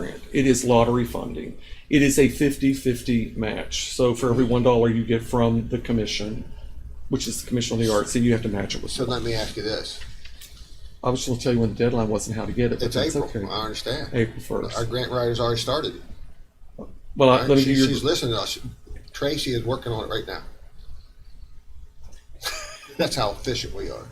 It is lottery funding. It is a 50-50 match. So for every one dollar you get from the commission, which is the Commission on the Arts, then you have to match it with. So let me ask you this. I was just gonna tell you when the deadline was and how to get it, but It's that's April, okay. I understand. April first. Our grant writer's already started. it. Well, I- let me She- give She's you. listening to us. Tracy is working on it right now. That's how efficient we are.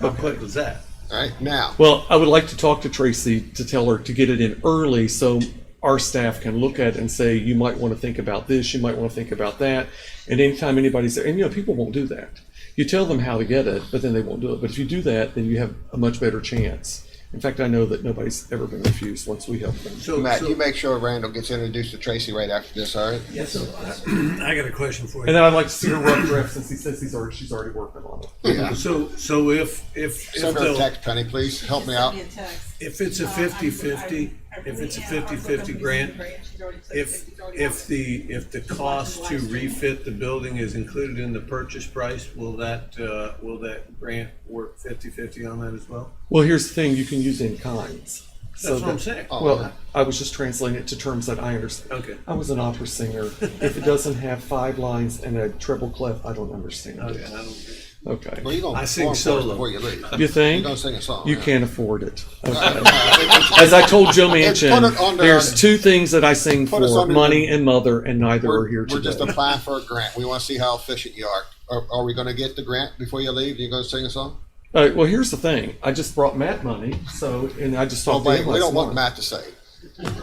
How quick was that? All right, now, Well, I would like to talk to Tracy to tell her to get it in early so our staff can look at it and say, you might want to think about this, you might want to think about that. And anytime anybody's there, and you know, people won't do that. You tell them how to get it, but then they won't do it. But if you do that, then you have a much better chance. In fact, I know that nobody's ever been refused once we help them. So, Matt, so- you make sure Randall gets introduced to Tracy right after this, all right? yeah, so uh, I- I got a question for And you. then I'd like to see her rough draft since he says he's already, she's already working on it. Yeah. So, so if, if, if Send her a they'll, text, Penny, please. Help me out. Send me a text. if it's a Uh, I'm- fifty-fifty, I'm- if it's a yeah, I'm looking fifty-fifty for the grant, She's already said if, 50, already if on it. the, if the cost to refit the building is included in the purchase price, will that, uh, will that grant work fifty-fifty on that as well? Well, here's the thing, you can use in kinds. So That's what I'm that- saying. Oh, Well, I was just translating it to terms that I understand. Okay. I was an opera singer. If it doesn't have five lines and a treble clef, I don't understand I- I it. don't- Well, Okay. you're gonna I sing perform for us solo. before you leave. You You're think? gonna sing a song. You yeah. can't afford it. I- I- As I told Joe It's put it Manchin, under- there's two things that I sing Put us for, under- money and mother, and neither are We're, here we're just today. applying for a grant. We wanna see how efficient you are. Are, are we gonna get the grant before you leave? You gonna sing a song? Uh, well, here's the thing. I just brought Matt money, so, and I just Oh, talked to wait, him we last don't want month. Matt to say. it.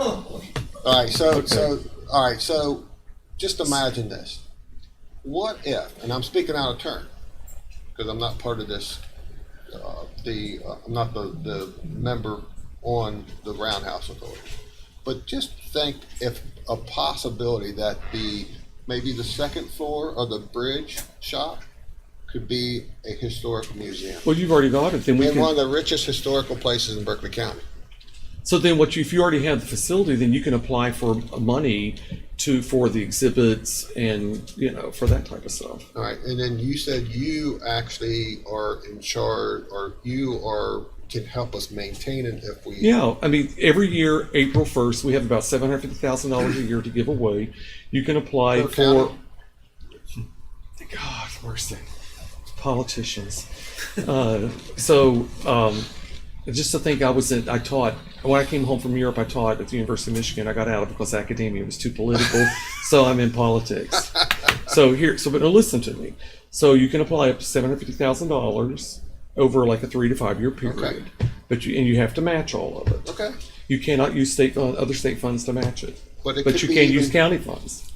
All right, so, so, all right, so, just imagine this. What if, and I'm speaking out of turn, because I'm not part of this, uh, the, uh, I'm not the, the member on the Roundhouse Authority. But just think if a possibility that the, maybe the second floor of the bridge shop could be a historic museum. Well, you've already got it, then we In one of can, the richest historical places in Berkeley County. so then what you, if you already have the facility, then you can apply for money to, for the exhibits and, you know, for that type of stuff. All right, and then you said you actually are in charge, or you are, can help us maintain it if we. Yeah, I mean, every year, April first, we have about seven hundred fifty thousand dollars a year to give away. You can apply Per for. county? God mercy, politicians. Uh, so, um, just to think, I was in, I taught, when I came home from Europe, I taught at the University of Michigan. I got out because academia was too political, so I'm in politics. So here, so but now listen to me. So you can apply up to seven hundred fifty thousand dollars over like a three to five year period, but you and you have to match all of it. Okay, You cannot use state fund, other state funds to match it, but it but could you be can use even, Oh, county funds.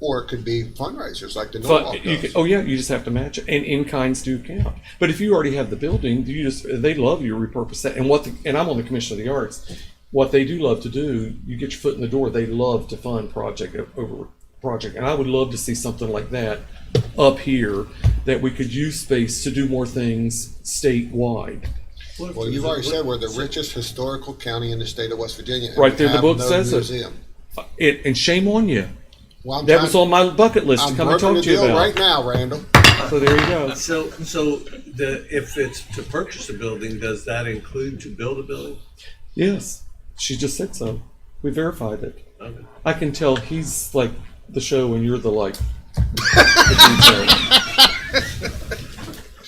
or it could be fundraisers like the Norwalk But you can, does. oh yeah, you just have to match it, and in kinds do count. But if you already have the building, you just they love you repurpose that. And what the, and I'm on the commission of the arts. What they do love to do, you get your foot in the door. They love to fund project o- over project, and I would love to see something like that up here that we could use space to do more things statewide. what if Well, there you've was a- already said we're the so- richest historical county in the state of West Virginia. and Right we there, the have book no says it. museum. It, and shame on you. Well, I'm That was trying- on my bucket list I'm to come and working talk the to you deal about. right now, Randall. So there you go. So, so the, if it's to purchase a building, does that include to build a building? Yes, she just said so. We verified it. Okay. I can tell he's like the show and you're the like. the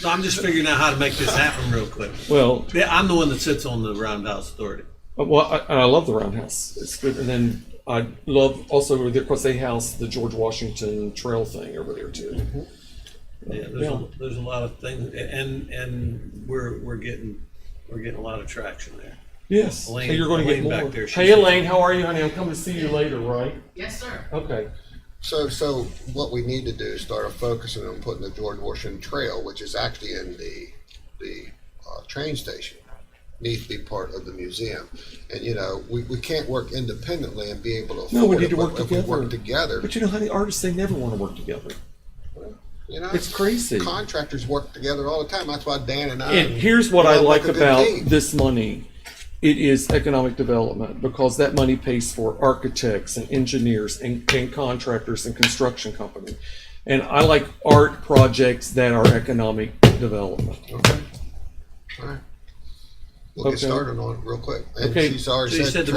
No, I'm just figuring out how to make this happen real quick. detail. well, Yeah, I'm the one that sits on the roundhouse authority. uh, well, I, and I love the Roundhouse. It's good, and then I love also over there, of course they house the George Washington Trail thing over there too. Yeah, there's, Yeah. a, there's a lot of things, and, and we're, we're getting, we're getting a lot of traction there. Yes, Elaine- so you're going to get Elaine back more. there, hey, she's- Elaine, how are you, honey? I'm coming to see you later, right? Yes, sir. Okay. So, so what we need to do is start focusing on putting the George Washington Trail, which is actually in the, the, uh, train station, needs to be part of the museum. And, you know, we, we can't work independently and be able to No, we afford need it, to work but if we work together. together, But you know, honey, artists they never want to work together. you know? It's crazy. Contractors work together all the time. That's why Dan and I. And here's what we I all like work a good about team. this money. It is economic development because that money pays for architects and engineers and, and contractors and construction company. And I like art projects that are economic development. Okay. All right. We'll Okay. get started on it real quick. And Okay. she's already So you said said the